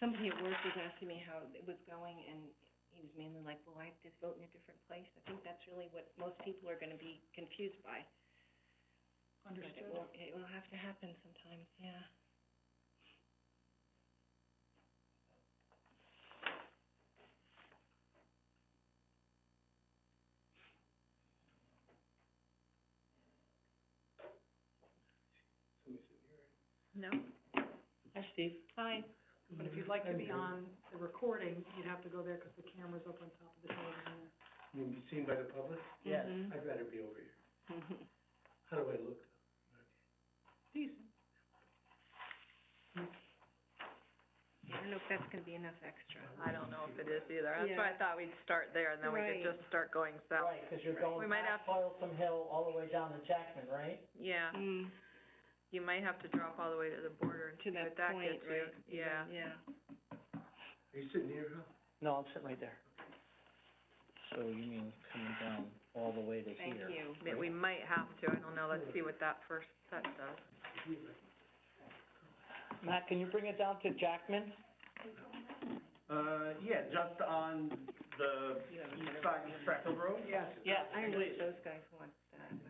somebody at work was asking me how it was going, and he was mainly like, well, I just vote in a different place. I think that's really what most people are gonna be confused by. But it will, it will have to happen sometimes, yeah. No. Hi, Steve. Hi. But if you'd like to be on the recording, you'd have to go there because the camera's up on top of the television. You be seen by the public? Yes. Mm-hmm. I'd rather be over here. How do I look? Decent. I don't know if that's gonna be enough extra. I don't know if it is either. That's why I thought we'd start there and then we could Right. just start going south. Right, because you're going We might have, past Toilsome Hill all the way down to Jackman, right? yeah, Mm, you might have to drop all the way to the border and to see that what that point, gets you. right? Yeah. Yeah. Are you sitting here, huh? No, I'm sitting right there. So you mean coming down all the way to Thank you. I mean, we might have to, I don't know, let's see what that first set does. Matt, can you bring it down to Jackman? Uh, yeah, just on the east side of Freckle Road. Yes. Yeah. I don't know if those guys want that.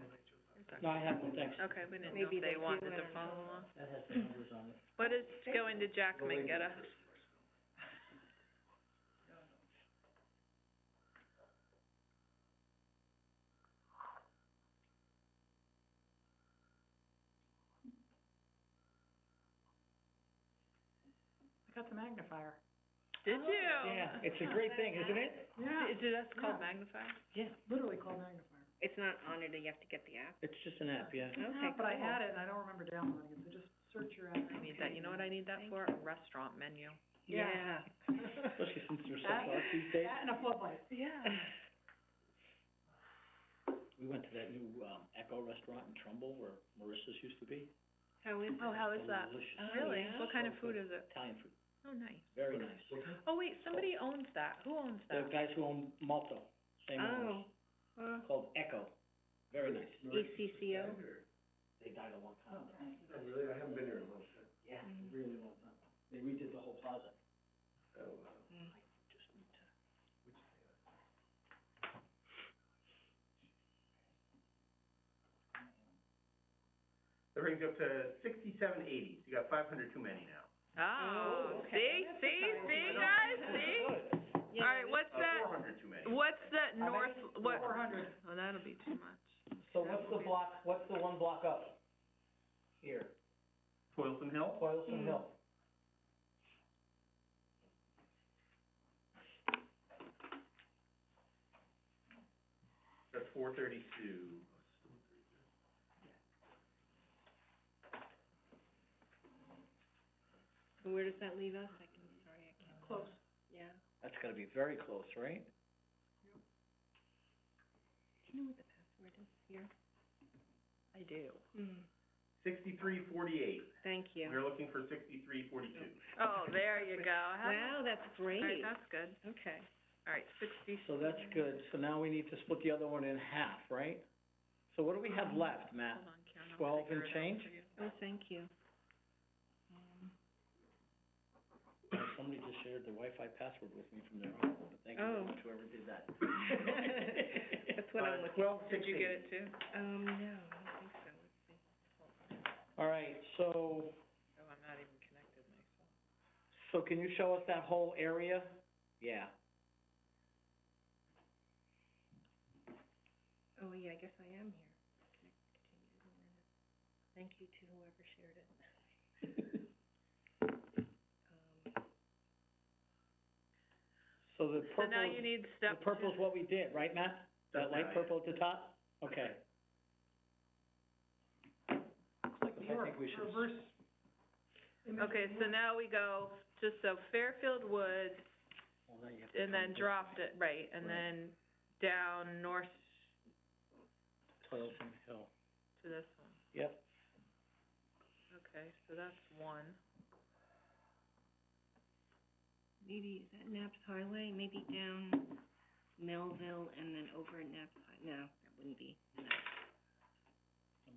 No, I haven't, thanks. Okay, we didn't know Maybe if they they do, I wanted to don't follow know. along. That has the numbers on it. What does going to Jackman get us? I got the magnifier. Did you? Yeah, it's a great thing, isn't it? Yeah. Is it, that's called Yeah. magnifier? Yeah, Literally called magnifier. It's not on it, you have to get the app. it's just an app, yeah. Okay, But I cool. had it and I don't remember downloading it, so just search your app. I need that, you know what I need that for? A restaurant menu. Yeah. Especially since you're so That- close these days. That and a floodlight. Yeah. We went to that new, um, Echo Restaurant in Trumbull where Marissa's used to be. How is Oh, it? how is that? Delicious. Oh, Really? yeah? What kind of food is it? Italian food, Oh, nice. very nice. Oh, wait, somebody owns that. Who owns The that? guys who own Malto, same owners, Oh, E uh, called Echo, very nice. ECCO? They died a long time ago. Oh, really? I haven't been here in a long time. Yeah, really long time. They redid the whole plaza. Oh, wow. Just need to. That brings you up to sixty-seven eighty, so you got five hundred too many now. Oh, okay. see, That's see, exciting. see, guys, see? Yeah, All right, what's Uh, that, four hundred too many. what's that many? north, what? Four hundred. Oh, that'll be too much. So what's the block, what's the one block up? Here, Toilsome Hill? Hmm. Toilsome Hill. That's four thirty-two. Where does that leave us? I can, sorry, I can't. Close. Yeah. That's gotta be very close, right? Do you know what the password is here? I do. Mm, Sixty-three forty-eight. thank you. We're looking for sixty-three forty-two. Oh, there you go. Wow, How- that's All right, great. that's good. Okay. All right, sixty. So that's good, so now we need to split the other one in half, right? So what do we have left, Matt? Hold on, Karen, I'll Twelve figure and it out change? for you. Oh, thank you. Somebody just shared their Wi-Fi password with me from their home, but thank you Oh. very much, whoever did that. Uh, That's what I'm looking, Twelve Did you get sixty-eight. it um, too? no, I don't think so. Let's see. All right, so, Oh, I'm not even connected myself. so can you show us that whole area? Yeah. Oh, yeah, I guess I am here. Can I continue to learn it? Thank you to whoever shared it. Um, So the So purple, now you need the step two. purple's what we did, right, Matt? That That's light right. purple at the top? Okay. Like I New York, think we should- reverse. image of Okay, New so York. now we go, just so Fairfield Woods, Well, Oh, now you have to and then come dropped this it, right, and Right. then down north way. Toilsome Hill, to this one. yep. Okay, so that's one. Maybe, is that Naps Highway? Maybe down Melville and then over Naps High, no, that wouldn't be, no.